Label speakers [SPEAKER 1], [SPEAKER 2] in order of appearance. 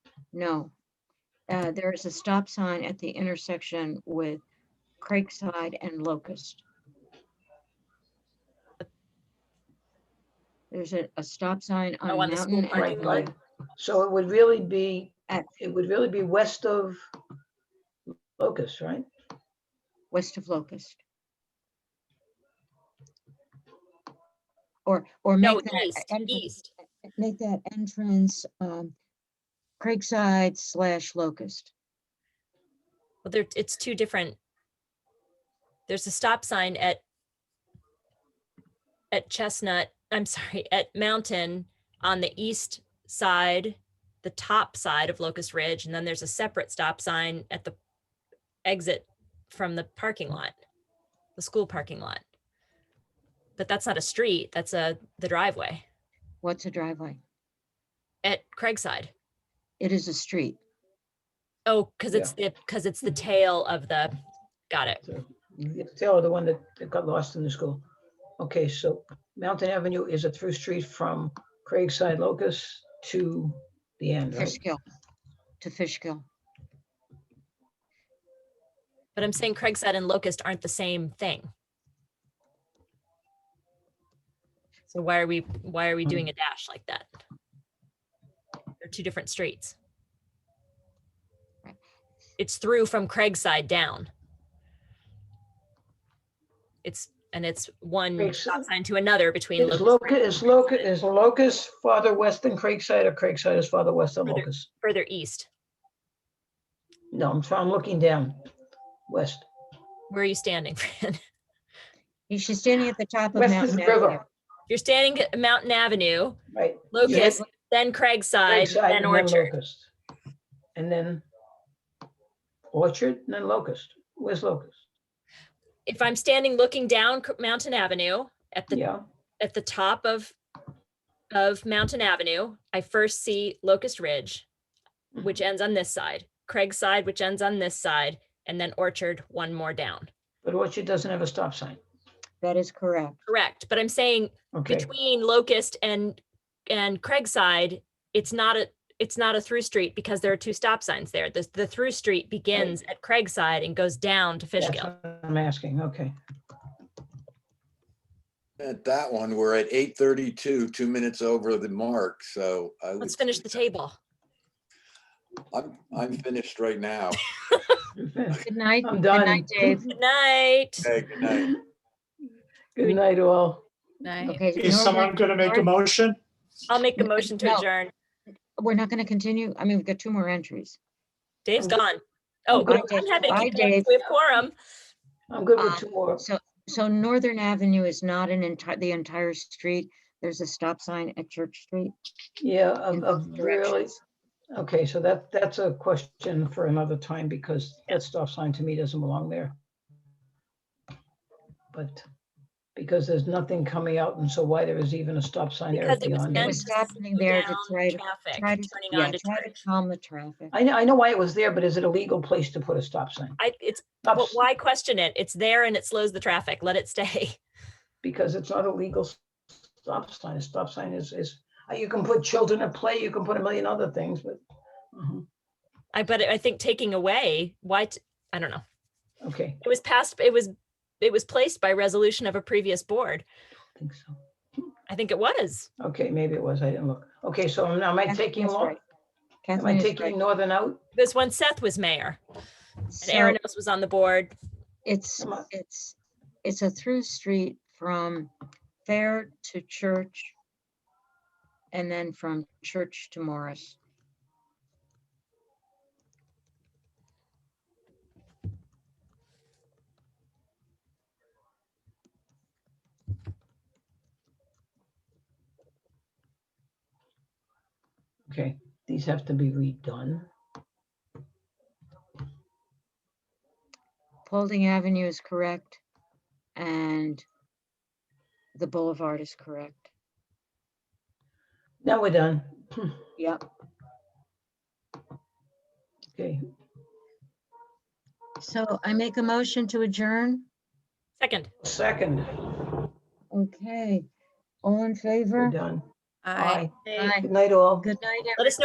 [SPEAKER 1] No. Uh, There is a stop sign at the intersection with Craigside and Locust. There's a, a stop sign on
[SPEAKER 2] Oh, on the school
[SPEAKER 1] Mountain. and
[SPEAKER 2] parking
[SPEAKER 1] on-
[SPEAKER 2] lot.
[SPEAKER 3] So it would really be,
[SPEAKER 1] At-
[SPEAKER 3] it would really be west of Locust, right?
[SPEAKER 1] West of Locust. Or, or
[SPEAKER 2] No,
[SPEAKER 1] make that
[SPEAKER 2] east,
[SPEAKER 1] entrance,
[SPEAKER 2] east.
[SPEAKER 1] make that entrance, um, Craigside slash Locust.
[SPEAKER 2] Well, there, it's two different. There's a stop sign at at Chestnut, I'm sorry, at Mountain on the east side, the top side of Locust Ridge, and then there's a separate stop sign at the exit from the parking lot, the school parking lot. But that's not a street, that's a the driveway
[SPEAKER 1] What's a driveway?
[SPEAKER 2] at Craigside.
[SPEAKER 1] It is a street.
[SPEAKER 2] Oh, because it's the because it's
[SPEAKER 1] Mm-hmm.
[SPEAKER 2] the tail of the got it.
[SPEAKER 3] The Taylor, the one that that got lost in the school. Okay, so Mountain Avenue is a through street from Craigside Locust to the end, right?
[SPEAKER 1] Fishkill, to Fishkill.
[SPEAKER 2] But I'm saying Craigside and Locust aren't the same thing. So why are we, why are we doing a dash like that? They're two different streets. It's through from Craigside down. It's, and it's one stop
[SPEAKER 3] Craigside.
[SPEAKER 2] sign to another between.
[SPEAKER 3] Is
[SPEAKER 2] Locust-
[SPEAKER 3] Locust, is Locust, is Locust farther west than Craigside or Craigside is farther west than
[SPEAKER 2] Further.
[SPEAKER 3] Locust?
[SPEAKER 2] Further east.
[SPEAKER 3] No, I'm, try- I'm looking down, west.
[SPEAKER 2] Where are you standing, Fran?
[SPEAKER 1] You- She's standing at the top of
[SPEAKER 3] West is
[SPEAKER 1] Mountain
[SPEAKER 3] the
[SPEAKER 1] Avenue.
[SPEAKER 3] river,
[SPEAKER 2] You're standing at Mountain Avenue,
[SPEAKER 3] right?
[SPEAKER 2] Locust, then Craigside,
[SPEAKER 3] Craigside
[SPEAKER 2] then
[SPEAKER 3] and
[SPEAKER 2] Orchard.
[SPEAKER 3] Locust. And then Orchard and then Locust. Where's Locust?
[SPEAKER 2] If I'm standing looking down Cr- Mountain Avenue at the
[SPEAKER 3] Yeah,
[SPEAKER 2] at the top of of Mountain Avenue, I first see Locust Ridge, which ends on this side, Craig's side, which ends on this side, and then Orchard, one more down.
[SPEAKER 3] but Orchard doesn't have a stop sign.
[SPEAKER 1] That is correct.
[SPEAKER 2] Correct. But I'm saying
[SPEAKER 3] Okay,
[SPEAKER 2] between Locust and and Craig's side, it's not a it's not a through street because there are two stop signs there. The, the through street begins at Craig's side and goes down to
[SPEAKER 3] that's
[SPEAKER 2] Fishkill.
[SPEAKER 3] what I'm asking, okay.
[SPEAKER 4] At that one, we're at eight thirty-two, two minutes over the mark, so I would.
[SPEAKER 2] Let's finish the table.
[SPEAKER 4] I'm, I'm finished right now.
[SPEAKER 1] Good night.
[SPEAKER 3] I'm
[SPEAKER 1] Good
[SPEAKER 3] done.
[SPEAKER 1] night, Dave.
[SPEAKER 2] Good night.
[SPEAKER 4] Okay, good night.
[SPEAKER 3] Good night, all.
[SPEAKER 1] Okay.
[SPEAKER 5] Is
[SPEAKER 1] Norma,
[SPEAKER 5] someone going to make a
[SPEAKER 1] Norma,
[SPEAKER 5] motion?
[SPEAKER 2] I'll make a motion to
[SPEAKER 1] No.
[SPEAKER 2] adjourn.
[SPEAKER 1] We're not going to continue. I mean, we've got two more entries.
[SPEAKER 2] Dave's gone. Oh,
[SPEAKER 1] Bye,
[SPEAKER 2] we don't have
[SPEAKER 1] Dave. Bye,
[SPEAKER 2] it.
[SPEAKER 1] Dave.
[SPEAKER 2] We have quorum.
[SPEAKER 3] I'm good with
[SPEAKER 1] Um,
[SPEAKER 3] two more.
[SPEAKER 1] So Northern Avenue is not an entire, the entire street. There's a stop sign at Church Street.
[SPEAKER 3] Yeah,
[SPEAKER 1] in
[SPEAKER 3] of, of
[SPEAKER 1] both
[SPEAKER 3] really,
[SPEAKER 1] directions.
[SPEAKER 3] okay, so that, that's a question for another time because that stop sign to me doesn't belong there. But because there's nothing coming out and so why there is even a stop sign there
[SPEAKER 2] Because it was
[SPEAKER 3] beyond.
[SPEAKER 1] It
[SPEAKER 2] meant
[SPEAKER 3] it.
[SPEAKER 1] was
[SPEAKER 2] to
[SPEAKER 1] happening
[SPEAKER 2] slow
[SPEAKER 1] there to
[SPEAKER 2] down
[SPEAKER 1] try to-
[SPEAKER 2] traffic,
[SPEAKER 1] Try to,
[SPEAKER 2] Turning
[SPEAKER 1] yeah,
[SPEAKER 2] on to
[SPEAKER 1] try to
[SPEAKER 2] church.
[SPEAKER 1] calm the traffic.
[SPEAKER 3] I know, I know why it was there, but is it a legal place to put a stop sign?
[SPEAKER 2] I, it's,
[SPEAKER 3] Stop
[SPEAKER 2] but
[SPEAKER 3] s-
[SPEAKER 2] why question it? It's there and it slows the traffic. Let it stay.
[SPEAKER 3] Because it's not a legal s- stop sign. A stop sign is, is, uh, you can put children at play, you can put a million other things, but, mhm,
[SPEAKER 2] I, but I think taking away, why, t- I don't know.
[SPEAKER 3] okay,
[SPEAKER 2] It was passed, it was, it was placed by resolution of a previous board.
[SPEAKER 3] I think so.
[SPEAKER 2] I think it was.
[SPEAKER 3] Okay, maybe it was, I didn't look. Okay, so am am I
[SPEAKER 1] Kathleen
[SPEAKER 3] taking,
[SPEAKER 1] is
[SPEAKER 3] Lo-
[SPEAKER 1] right.
[SPEAKER 3] am I
[SPEAKER 1] Kathleen is
[SPEAKER 3] taking
[SPEAKER 1] right.
[SPEAKER 3] Northern out?
[SPEAKER 2] This one Seth was mayor and
[SPEAKER 1] So
[SPEAKER 2] Aaron Else was on the board.
[SPEAKER 1] it's,
[SPEAKER 3] Come on.
[SPEAKER 1] it's, it's a through street from Fair to Church. And then from Church to Morris.
[SPEAKER 3] Okay, these have to be redone.
[SPEAKER 1] Paulding Avenue is correct. And the Boulevard is correct.
[SPEAKER 3] Now we're done.
[SPEAKER 1] Yep.
[SPEAKER 3] Okay,
[SPEAKER 1] So I make a motion to adjourn.
[SPEAKER 2] Second,
[SPEAKER 3] second,
[SPEAKER 1] Okay. All in
[SPEAKER 3] we're
[SPEAKER 1] favor?
[SPEAKER 3] done.
[SPEAKER 6] Aye.
[SPEAKER 3] Aye. Good night, all.
[SPEAKER 1] Good night,
[SPEAKER 2] let us know